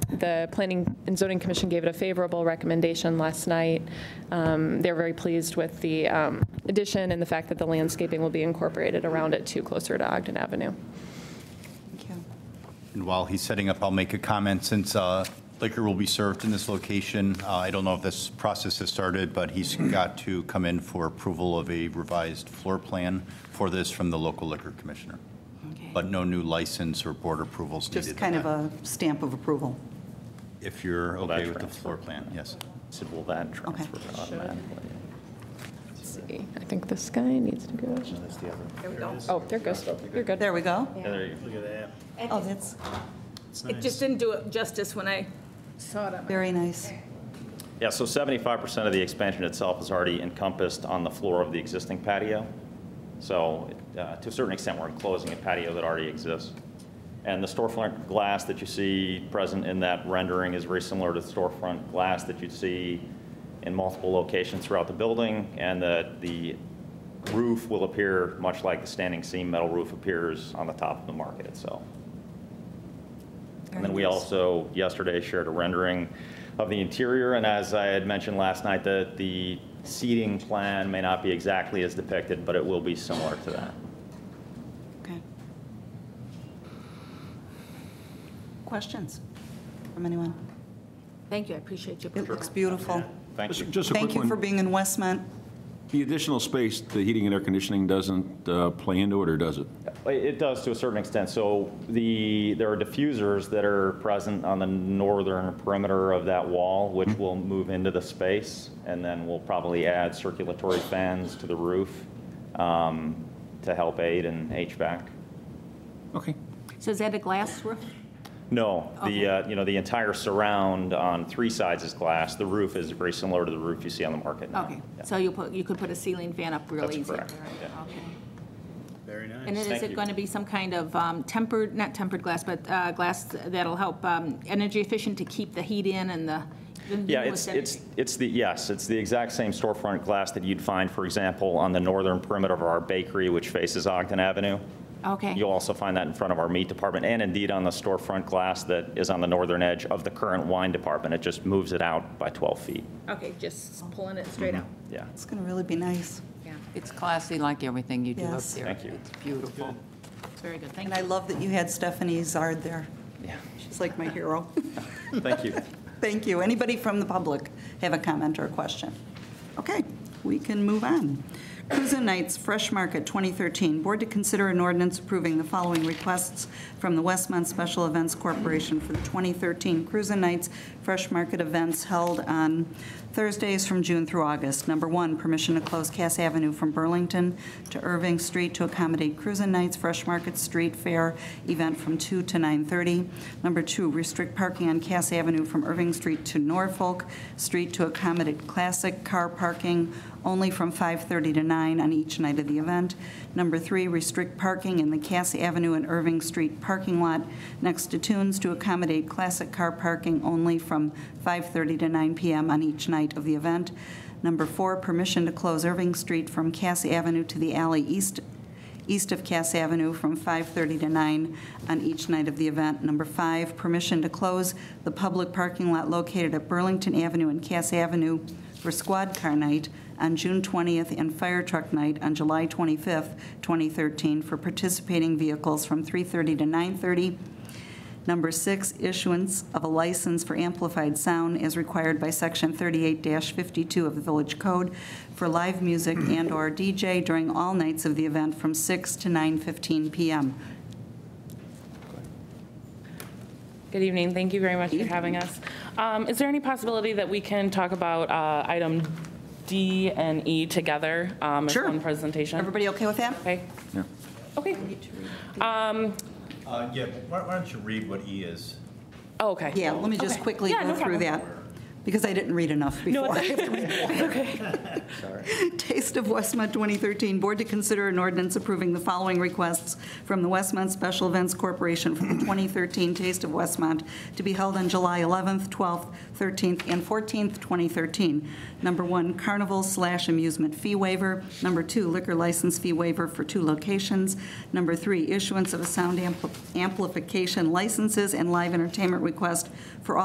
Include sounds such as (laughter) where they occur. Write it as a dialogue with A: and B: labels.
A: The Planning and Zoning Commission gave it a favorable recommendation last night. Um, They're very pleased with the um, addition and the fact that the landscaping will be incorporated around it too, closer to Ogden Avenue.
B: Thank you.
C: And while he's setting up, I'll make a comment since uh, liquor will be served in this location. uh, I don't know if this process has started, but he's got to come in for approval of a revised floor plan for this from the local liquor commissioner.
B: Okay.
C: But no new license or board approvals needed.
B: Just kind of a stamp of approval.
C: If you're
D: that
C: okay with the
D: transfer?
C: floor plan, yes.
D: So will that transfer automatically?
A: Let's see, I think this guy needs to go.
D: That's the other.
E: There we go.
A: Oh, there it goes. You're good.
B: There we go.
D: Yeah, there you go.
B: Oh, that's
E: It just didn't do it justice when I saw it. on my-
B: very nice.
D: Yeah, so 75% of the expansion itself is already encompassed on the floor of the existing patio. So uh, to a certain extent, we're enclosing a patio that already exists. And the storefront glass that you see present in that rendering is very similar to the storefront glass that you see in multiple locations throughout the building, and that the roof will appear much like the standing seam metal roof appears on the top of the market itself. And then we also, yesterday, shared a rendering of the interior, and as I had mentioned last night, that the seating plan may not be exactly as depicted, but it will be similar to that.
B: Okay. Questions from anyone?
E: Thank you, I appreciate your.
B: It looks beautiful.
D: Thank you.
F: Just just a quick
B: Thank you for
F: one.
B: being in Westmont.
F: The additional space, the heating and air conditioning doesn't uh, play into it, or does it?
D: It does to a certain extent. So the, there are diffusers that are present on the northern perimeter of that wall, which will move into the space, and then we'll probably add circulatory fans to the roof um, to help aid in HVAC.
F: Okay.
E: So is that a glass roof?
D: No,
E: Okay.
D: the, uh, you know, the entire surround on three sides is glass. The roof is very similar to the roof you see on the market now.
E: Okay,
D: Yeah.
E: so you put, you could put a ceiling fan up real
D: That's
E: easy.
D: correct,
E: right?
D: yeah.
E: Okay.
G: Very nice.
E: And then is
D: Thank
E: it
D: you.
E: going to be some kind of um, tempered, not tempered glass, but uh, glass that'll help um, energy efficient to keep the heat in and the. the
D: Yeah,
E: newest
D: it's, it's,
E: energy?
D: it's the, yes, it's the exact same storefront glass that you'd find, for example, on the northern perimeter of our bakery, which faces Ogden Avenue.
E: Okay.
D: You'll also find that in front of our meat department and indeed on the storefront glass that is on the northern edge of the current wine department. It just moves it out by 12 feet.
E: Okay, just pulling it straight out.
D: Yeah.
B: It's going to really be nice.
E: Yeah,
H: It's classy like everything you do up
B: Yes.
H: there.
D: Thank you.
H: It's beautiful.
E: it's very good, thank
B: And
E: you.
B: I love that you had Stephanie Zard there.
D: Yeah.
B: She's like my hero. (laughs)
D: Thank you.
B: Thank you. Anybody from the public have a comment or a question? Okay, we can move on. Cruisin' Nights Fresh Market 2013. Board to consider an ordinance approving the following requests from the Westmont Special Events Corporation for the 2013 Cruisin' Nights Fresh Market events held on Thursdays from June through August. Number one, permission to close Cass Avenue from Burlington to Irving Street to accommodate Cruisin' Nights Fresh Market Street Fair event from 2 to 9:30. Number two, restrict parking on Cass Avenue from Irving Street to Norfolk Street to accommodate classic car parking only from 5:30 to 9 on each night of the event. Number three, restrict parking in the Cass Avenue and Irving Street parking lot next to Tunes to accommodate classic car parking only from 5:30 to 9 p.m. on each night of the event. Number four, permission to close Irving Street from Cass Avenue to the alley east east of Cass Avenue from 5:30 to 9 on each night of the event. Number five, permission to close the public parking lot located at Burlington Avenue and Cass Avenue for squad car night on June 20th and fire truck night on July 25th, 2013, for participating vehicles from 3:30 to 9:30. Number six, issuance of a license for amplified sound as required by Section 38-52 of the Village Code for live music and/or DJ during all nights of the event from 6 to 9:15 p.m.
I: Good evening. Thank you very much for having us. Um, Is there any possibility that we can talk about uh, item D and E together? um, as
B: Sure.
I: one presentation?
B: Everybody okay with that?
I: Okay.
F: Yeah.
I: Okay.
C: Uh, Yeah, why why don't you read what E is?
I: Oh, okay.
B: Yeah, let me just
I: Okay.
B: quickly
I: Yeah,
B: go
I: no
B: through
I: problem.
B: that, because I didn't read enough
I: No,
B: before.
I: it's-
B: I have to (laughs) read Taste of Westmont 2013, Board to consider an ordinance approving the following requests from the Westmont Special Events Corporation for the 2013 Taste of Westmont to be held on July 11th, 12th, 13th, and 14th, 2013. Number one, carnival slash amusement fee waiver. Number two, liquor license fee waiver for two locations. Number three, issuance of a sound ampli- amplification licenses and live entertainment request for all.